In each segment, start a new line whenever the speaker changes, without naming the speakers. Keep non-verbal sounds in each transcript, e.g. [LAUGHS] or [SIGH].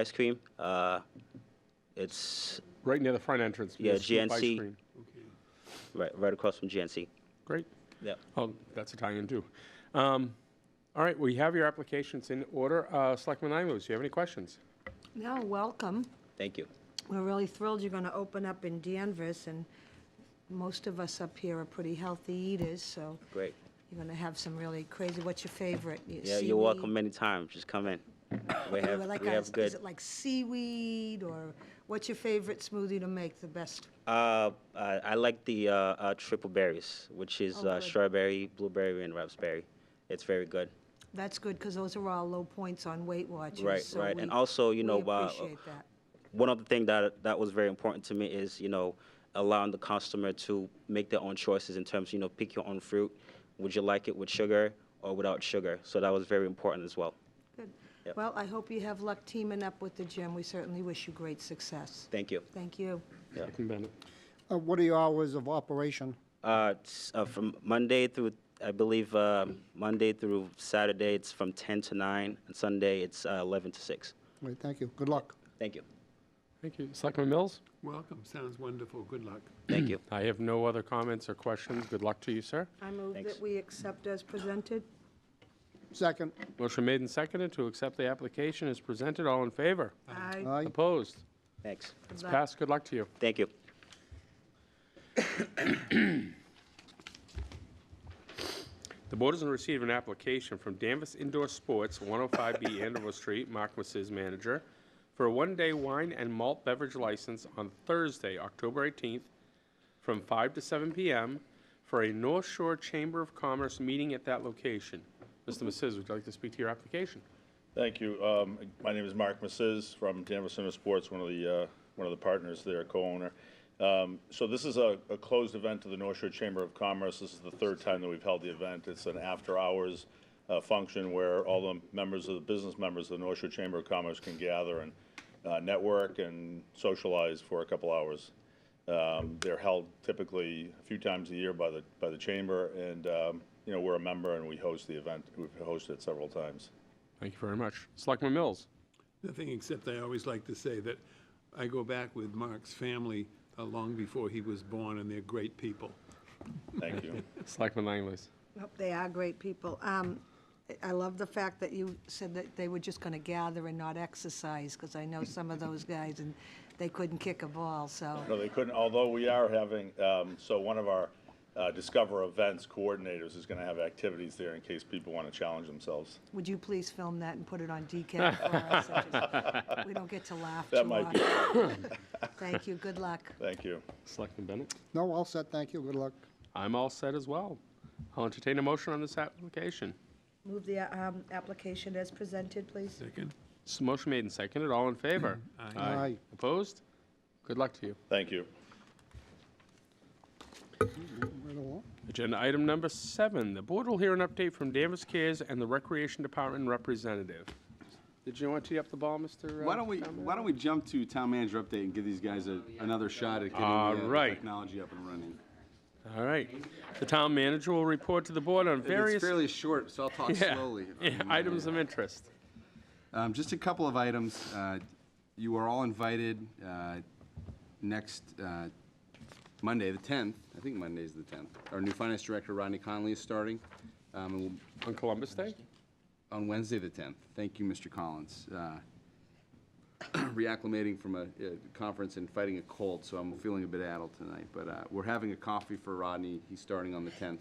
ice cream. Uh, It's
Right near the front entrance.
Yeah,
Miss Scoop Ice
GNC.
Cream.
right, right across from GNC.
Great.
Yeah.
Oh, that's Italian too. Um, All right, we have your applications in order. Uh, Selectman Imos, do you have any questions?
No, welcome.
Thank you.
We're really thrilled you're going to open up in Danvers, and most of us up here are pretty healthy eaters, so
Great.
you're going to have some really crazy, what's your favorite? Your
Yeah,
seaweed?
you're welcome many times. Just come in.
[COUGHS]
We
Or
have,
like
we
a-
have
Is
good.
it like seaweed, or what's your favorite smoothie to make the best?
Uh, I, I like the uh, uh, triple berries, which is
Oh,
uh,
good.
strawberry, blueberry, and raspberry. It's very good.
That's good, because those are all low points on Weight Watchers.
Right,
so
right. And
we-
also, you know,
We
uh,
appreciate that.
one of the things that that was very important to me is you know allowing the customer to make their own choices in terms you know pick your own fruit would you like it with sugar or without sugar so that was very important as well
Good.
Yep.
Well, I hope you have luck teaming up with the gym. We certainly wish you great success.
thank you
Thank you.
Selectman Bennett.
Uh, What are your hours of operation?
uh, it's, uh, from monday through i believe uh, monday through saturday it's from 10 to 9 and sunday it's uh, 11 to 6
All right, thank you. Good luck.
thank you
Thank you. Selectman Mills?
Welcome, sounds wonderful, good luck.
thank you
I have no other comments or questions. Good luck to you, sir.
I move
Thanks.
that we accept as presented.
Second,
Motion made and seconded to accept the application as presented. All in favor?
Aye.
aye.
Opposed?
thanks
It's
Luck.
passed. Good luck to you.
thank you
The board is in receipt of an application from Danvers Indoor Sports, 105B Andover Street, Marquis's manager, for a one-day wine and malt beverage license on Thursday, October 18th, from 5 to 7 p.m. for a North Shore Chamber of Commerce meeting at that location. Mr. Messiz, would you like to speak to your application?
Thank you. Um, My name is Mark Massis from Denver Center Sports, one of the, uh, one of the partners there, co-owner. Um, So this is a a closed event to the North Shore Chamber of Commerce. This is the third time that we've held the event. It's an after-hours uh, function where all the members of the business members of the North Shore Chamber of Commerce can gather and uh, network and socialize for a couple hours. Um, They're held typically a few times a year by the, by the chamber, and, um, you know, we're a member and we host the event. We've hosted it several times.
Thank you very much. Selectman Mills?
Nothing except I always like to say that I go back with Mark's family uh, long before he was born, and they're great people.
Thank you.
Selectman Langley's.
Nope, They are great people. Um, I- I love the fact that you said that they were just going to gather and not exercise, because I know some of those guys, and they couldn't kick a ball, so.
No, they couldn't, although we are having, um, so one of our uh, Discover Events coordinators is going to have activities there in case people want to challenge themselves.
Would you please film that and put it on DCAT for us? I just- We don't get to laugh too
That might
much.
be,
Thank you, good luck.
thank you.
Selectman Bennett?
No, all set, thank you. Good luck.
I'm all set as well. I'll entertain a motion on this application.
Move the um, application as presented, please.
Second?
S- Motion made and seconded. All in
[CLEARS THROAT]
favor?
Aye.
Opposed? Good luck to you.
Thank you.
Right along.
Agenda item number seven, the board will hear an update from Danvers Cares and the Recreation Department representative. Did you want to tee up the ball, Mr.? uh,
Why don't we,
Cameron?
why don't we jump to town manager update and give these guys a, another shot at getting
All
the- the
right.
technology up and running?
All right. The town manager will report to the board on
It's
various
fairly short, so I'll talk
[LAUGHS] Yeah,
slowly.
yeah, items of interest.
Um, just a couple of items. Uh, you are all invited, uh, next, uh, Monday, the tenth, I think Monday's the tenth. Our new finance director, Rodney Conley, is starting, um, and we'll
On Columbus Day?
on Wednesday, the 10th. Thank you, Mr. Collins. Uh, [CLEARS THROAT] Reacclimating from a a conference and fighting a cold, so I'm feeling a bit addled tonight. But uh, we're having a coffee for Rodney. He's starting on the 10th,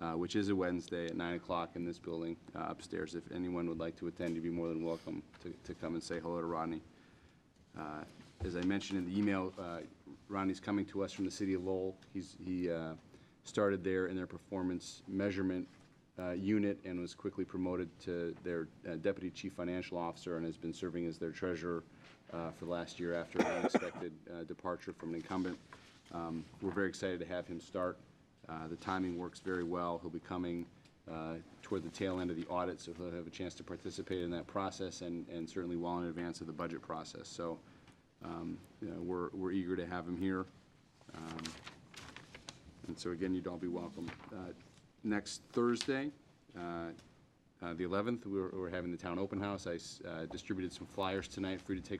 uh, which is a Wednesday at 9 o'clock in this building uh, upstairs. If anyone would like to attend, you'd be more than welcome to- to come and say hello to Rodney. Uh, As I mentioned in the email, uh, Ronnie's coming to us from the city of Lowell. He's, he uh, started there in their performance measurement uh, unit and was quickly promoted to their uh, deputy chief financial officer and has been serving as their treasurer uh, for the last year after an unexpected uh, departure from an incumbent. Um, We're very excited to have him start. Uh, The timing works very well. He'll be coming uh, toward the tail end of the audit, so he'll have a chance to participate in that process and and certainly well in advance of the budget process. So um, you know, we're we're eager to have him here. Um, And so again, you'd all be welcome. Uh, Next Thursday, uh, Uh, The 11th, we're we're having the town open house. I s- uh, distributed some flyers tonight for you to take